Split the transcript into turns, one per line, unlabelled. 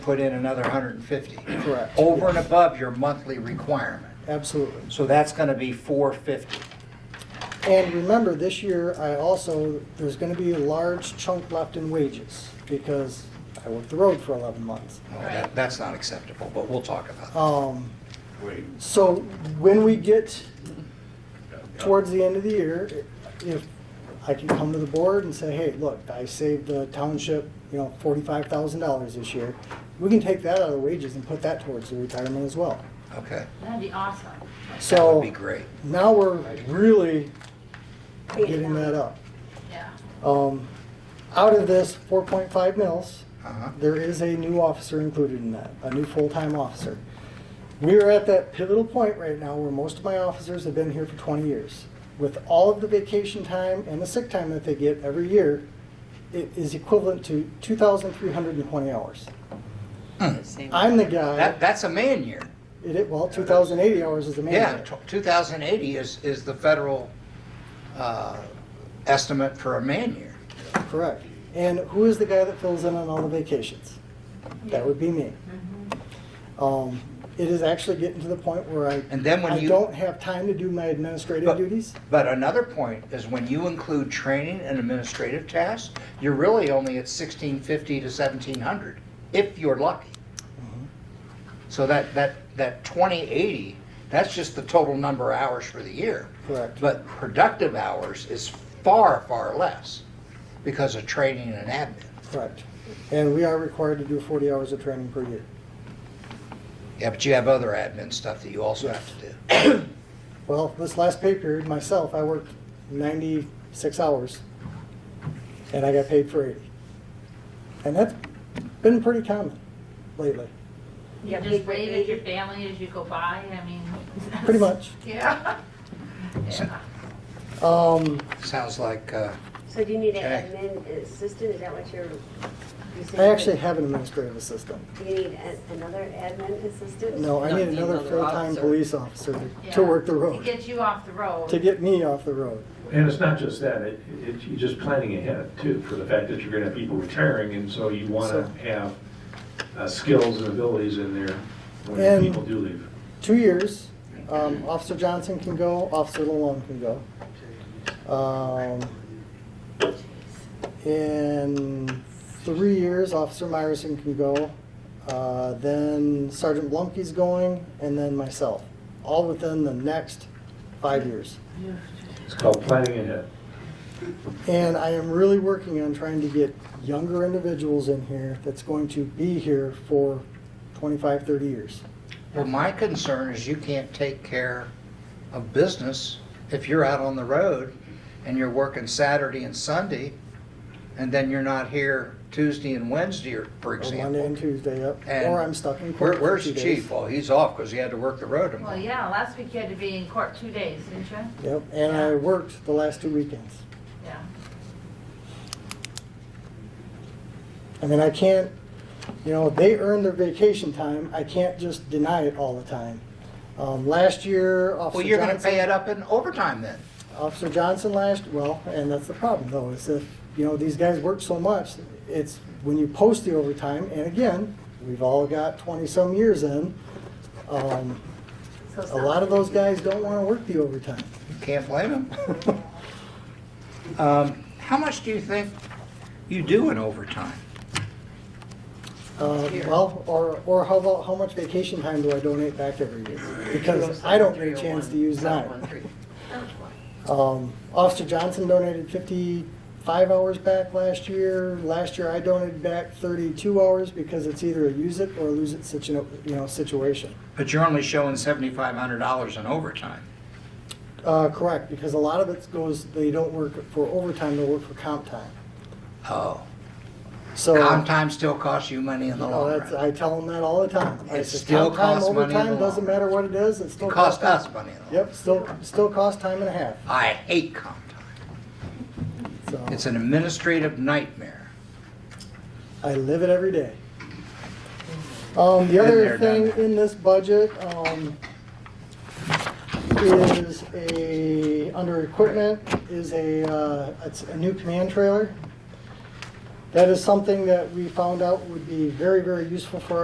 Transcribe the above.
put in another 150.
Correct.
Over and above your monthly requirement.
Absolutely.
So that's going to be 450.
And remember, this year, I also, there's gonna be a large chunk left in wages because I worked the road for eleven months.
Well, that- That's not acceptable, but we'll talk about that.
Um,
Wait,
so when we get towards the end of the year, if I can come to the board and say, hey, look, I saved the township, you know, forty-five thousand dollars this year, we can take that out of the wages and put that towards the retirement as well.
Okay.
That'd be awesome.
That would
So
be great.
now we're really getting that up.
Yeah.
Um, out of this four point five mils,
Uh-huh.
there is a new officer included in that, a new full-time officer. We are at that pivotal point right now where most of my officers have been here for twenty years. With all of the vacation time and the sick time that they get every year, it is equivalent to two thousand three hundred and twenty hours.
Hmm.
I'm the guy,
That, that's a man year.
it, it- well, two thousand eighty hours is the man.
Yeah,
year.
tw- 2080 is, is the federal uh, estimate for a man year.
Correct. And who is the guy that fills in on all the vacations? That would be me. Um, it is actually getting to the point where I,
And then when
I
you-
don't have time to do my administrative
But-
duties.
But another point is when you include training and administrative tasks, you're really only at 1650 to 1700, if you're lucky. So that, that, that 2080, that's just the total number of hours for the year.
Correct.
But productive hours is far, far less because of training and admin.
Correct. And we are required to do 40 hours of training per year.
Yeah, but you have other admin stuff that you also have to do.
Well, this last pay period, myself, I worked 96 hours and I got paid for 80. And that's been pretty common lately,
You just wave at your family as you go by, I mean.
pretty much.
Yeah. Yeah.
Um,
Sounds like, uh,
So do you need an
Okay.
admin assistant, is that what you're, you said?
I actually have an administrative assistant.
Do you need a- another admin assistant?
No, I
No,
need
need
another
another
full-time
officer.
police officer to-
Yeah.
to work the
To
road,
get you off the road.
to get me off the road.
And it's not just that, it, it, you're just planning ahead too, for the fact that you're gonna have people retiring, and so you wanna
So-
have uh, skills and abilities in there when
And-
people do leave.
Two years, um, Officer Johnson can go, Officer Lalone can go. Um, In three years, Officer Myerson can go, uh, then Sergeant Blumke's going, and then myself, all within the next five years.
It's called planning ahead.
And I am really working on trying to get younger individuals in here that's going to be here for 25, 30 years.
Well, my concern is you can't take care of business if you're out on the road and you're working Saturday and Sunday, and then you're not here Tuesday and Wednesday, or for
Or Monday and
example.
Tuesday, yep.
And
Or I'm stuck in
Where,
court for
where's
two
the
days.
chief? Well, he's off because he had to work the road
Well,
tomorrow.
yeah, last week you had to be in court two days, didn't you?
Yep, and I worked the last two weekends.
Yeah.
I mean, I can't, you know, they earn their vacation time. I can't just deny it all the time. Um, Last year,
Well,
Officer
you're gonna pay
Johnson,
it up in overtime then.
Officer Johnson last, well, and that's the problem though, is if, you know, these guys work so much, it's when you post the overtime, and again, we've all got twenty-some years in, um,
So it's
a
not-
lot of those guys don't wanna work the overtime.
Can't blame him. Um, How much do you think you do in overtime?
Uh, well, or, or how about, how much vacation time do I donate back every year? Because I don't get a chance to use mine. Um, Officer Johnson donated fifty-five hours back last year. Last year, I donated back thirty-two hours because it's either a use it or lose it situ, you know, situation.
But you're only showing seventy-five hundred dollars in overtime.
Uh, correct, because a lot of it goes, they don't work for overtime, they work for comp time.
Oh.
So.
Comp time still costs you money in the
No,
long
that's,
run.
I tell them that all the time. I
It
said,
still
"Comp time,
costs money in the
Overtime,
long
doesn't
run."
matter what it is, it still.
It costs
time.
us money in the long run.
Yep, still, still costs time and a half,
I hate comp time.
so.
It's an administrative nightmare.
I live it every day. Um, the other
Been there, done
thing
that.
in this budget, um, is a, under equipment, is a, uh, it's a new command trailer. That is something that we found out would be very, very useful for